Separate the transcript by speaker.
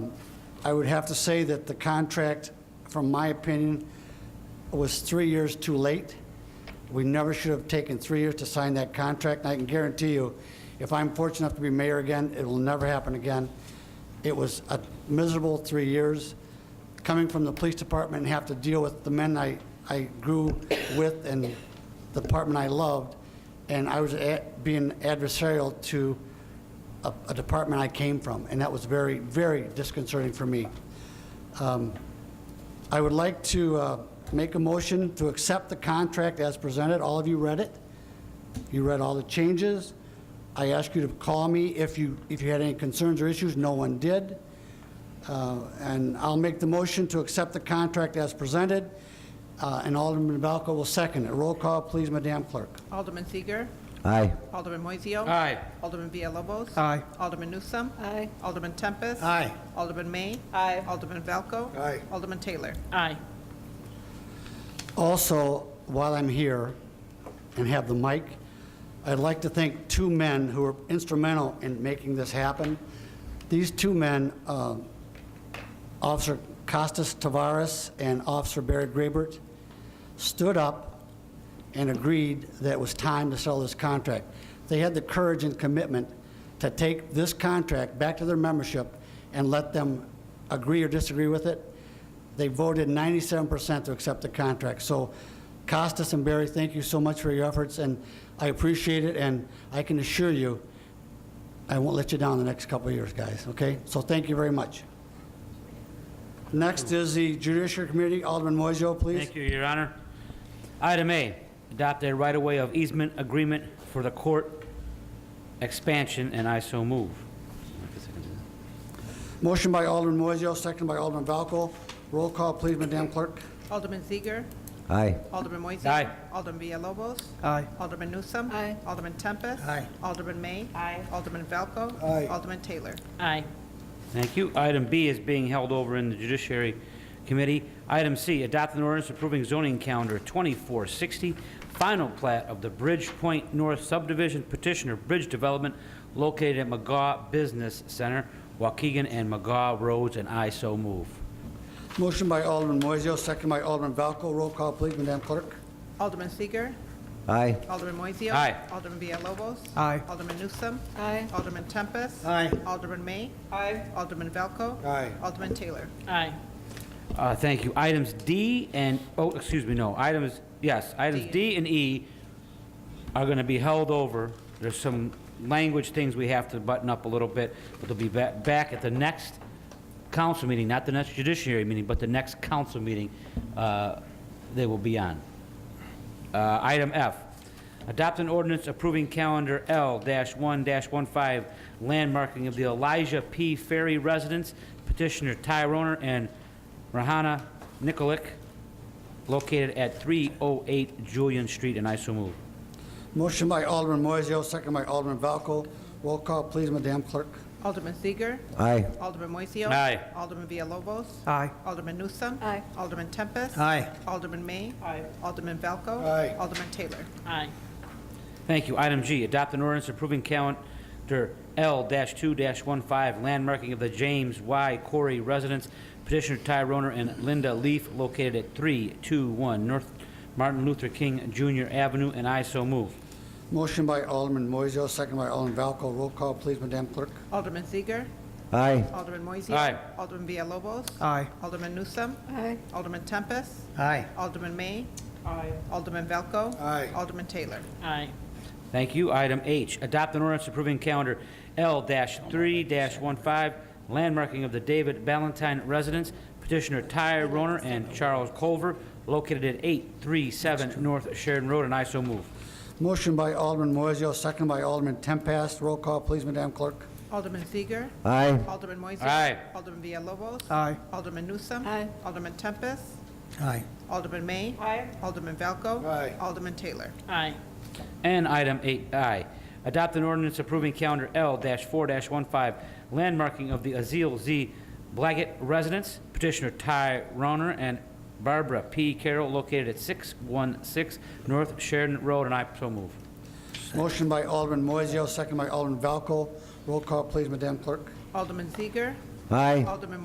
Speaker 1: I would have to say that the contract, from my opinion, was three years too late. We never should have taken three years to sign that contract, and I can guarantee you, if I'm fortunate enough to be mayor again, it will never happen again. It was a miserable three years, coming from the police department and have to deal with the men I, I grew with and the department I loved, and I was a- being adversarial to a, a department I came from, and that was very, very disconcerting for me. Um, I would like to uh, make a motion to accept the contract as presented. All of you read it. You read all the changes. I ask you to call me if you, if you had any concerns or issues. No one did. Uh, And I'll make the motion to accept the contract as presented, uh, and Alderman Valco will second it. Roll call, please, Madam Clerk.
Speaker 2: Alderman Seager.
Speaker 3: Aye.
Speaker 2: Alderman Moiseo.
Speaker 4: Aye.
Speaker 2: Alderman Villalobos.
Speaker 4: Aye.
Speaker 2: Alderman Newsome.
Speaker 5: Aye.
Speaker 2: Alderman Tempest.
Speaker 1: Aye.
Speaker 2: Alderman May.
Speaker 5: Aye.
Speaker 2: Alderman Valco.
Speaker 1: Aye.
Speaker 2: Alderman Taylor.
Speaker 5: Aye.
Speaker 1: Also, while I'm here and have the mic, I'd like to thank two men who were instrumental in making this happen. These two men, um, Officer Costas Tavares and Officer Barry Graybert, stood up and agreed that it was time to sell this contract. They had the courage and commitment to take this contract back to their membership and let them agree or disagree with it. They voted 97% to accept the contract. So Costas and Barry, thank you so much for your efforts, and I appreciate it, and I can assure you, I won't let you down the next couple of years, guys, okay? So thank you very much. Next is the Judiciary Committee, Alderman Moiseo, please.
Speaker 6: Thank you, Your Honor. Item A, adopt a right-of-way of easement agreement for the court expansion, and I so move.
Speaker 1: Motion by Alderman Moiseo, second by Alderman Valco. Roll call, please, Madam Clerk.
Speaker 2: Alderman Seager.
Speaker 3: Aye.
Speaker 2: Alderman Moiseo.
Speaker 6: Aye.
Speaker 2: Alderman Villalobos.
Speaker 4: Aye.
Speaker 2: Alderman Newsome.
Speaker 5: Aye.
Speaker 2: Alderman Tempest.
Speaker 1: Aye.
Speaker 2: Alderman May.
Speaker 5: Aye.
Speaker 2: Alderman Valco.
Speaker 1: Aye.
Speaker 2: Alderman Taylor.
Speaker 5: Aye.
Speaker 6: Thank you. Item B is being held over in the Judiciary Committee. Item C, adopt an ordinance approving zoning calendar 2460, final plat of the Bridge Point North subdivision petitioner bridge development located at McGaw Business Center, Waukegan and McGaw Roads, and I so move.
Speaker 1: Motion by Alderman Moiseo, second by Alderman Valco. Roll call, please, Madam Clerk.
Speaker 2: Alderman Seager.
Speaker 3: Aye.
Speaker 2: Alderman Moiseo.
Speaker 6: Aye.
Speaker 2: Alderman Villalobos.
Speaker 4: Aye.
Speaker 2: Alderman Newsome.
Speaker 5: Aye.
Speaker 2: Alderman Tempest.
Speaker 1: Aye.
Speaker 2: Alderman May.
Speaker 5: Aye.
Speaker 2: Alderman Valco.
Speaker 1: Aye.
Speaker 2: Alderman Taylor.
Speaker 5: Aye.
Speaker 6: Uh, Thank you. Items D and, oh, excuse me, no, items, yes, items D and E are going to be held over. There's some language things we have to button up a little bit, but they'll be ba- back at the next council meeting, not the next judiciary meeting, but the next council meeting uh, they will be on. Uh, Item F, adopt an ordinance approving calendar L-1-15 landmarking of the Elijah P. Ferry residence, petitioner Ty Roner and Rahana Nikolic, located at 308 Julian Street, and I so move.
Speaker 1: Motion by Alderman Moiseo, second by Alderman Valco. Roll call, please, Madam Clerk.
Speaker 2: Alderman Seager.
Speaker 3: Aye.
Speaker 2: Alderman Moiseo.
Speaker 6: Aye.
Speaker 2: Alderman Villalobos.
Speaker 4: Aye.
Speaker 2: Alderman Newsome.
Speaker 5: Aye.
Speaker 2: Alderman Tempest.
Speaker 4: Aye.
Speaker 2: Alderman May.
Speaker 5: Aye.
Speaker 2: Alderman Valco.
Speaker 1: Aye.
Speaker 2: Alderman Taylor.
Speaker 5: Aye.
Speaker 6: Thank you. Item G, adopt an ordinance approving calendar L-2-15 landmarking of the James Y. Corey residence, petitioner Ty Roner and Linda Leaf, located at 321 North Martin Luther King Jr. Avenue, and I so move.
Speaker 1: Motion by Alderman Moiseo, second by Alderman Valco. Roll call, please, Madam Clerk.
Speaker 2: Alderman Seager.
Speaker 3: Aye.
Speaker 2: Alderman Moiseo.
Speaker 6: Aye.
Speaker 2: Alderman Villalobos.
Speaker 4: Aye.
Speaker 2: Alderman Newsome.
Speaker 5: Aye.
Speaker 2: Alderman Tempest.
Speaker 4: Aye.
Speaker 2: Alderman May.
Speaker 5: Aye.
Speaker 2: Alderman Valco.
Speaker 1: Aye.
Speaker 2: Alderman Taylor.
Speaker 5: Aye.
Speaker 6: Thank you. Item H, adopt an ordinance approving calendar L-3-15, landmarking of the David Ballantyne residence, petitioner Ty Roner and Charles Culver, located at 837 North Sheridan Road, and I so move.
Speaker 1: Motion by Alderman Moiseo, second by Alderman Tempest. Roll call, please, Madam Clerk.
Speaker 2: Alderman Seager.
Speaker 3: Aye.
Speaker 2: Alderman Moiseo.
Speaker 6: Aye.
Speaker 2: Alderman Villalobos.
Speaker 4: Aye.
Speaker 2: Alderman Newsome.
Speaker 5: Aye.
Speaker 2: Alderman Tempest.
Speaker 4: Aye.
Speaker 2: Alderman May.
Speaker 5: Aye.
Speaker 2: Alderman Valco.
Speaker 1: Aye.
Speaker 2: Alderman Taylor.
Speaker 5: Aye.
Speaker 6: And item 8I, adopt an ordinance approving calendar L-4-15, landmarking of the Aziel Z. Blaggett residence, petitioner Ty Roner and Barbara P. Carroll, located at 616 North Sheridan Road, and I so move.
Speaker 1: Motion by Alderman Moiseo, second by Alderman Valco. Roll call, please, Madam Clerk.
Speaker 2: Alderman Seager.
Speaker 3: Aye.
Speaker 2: Alderman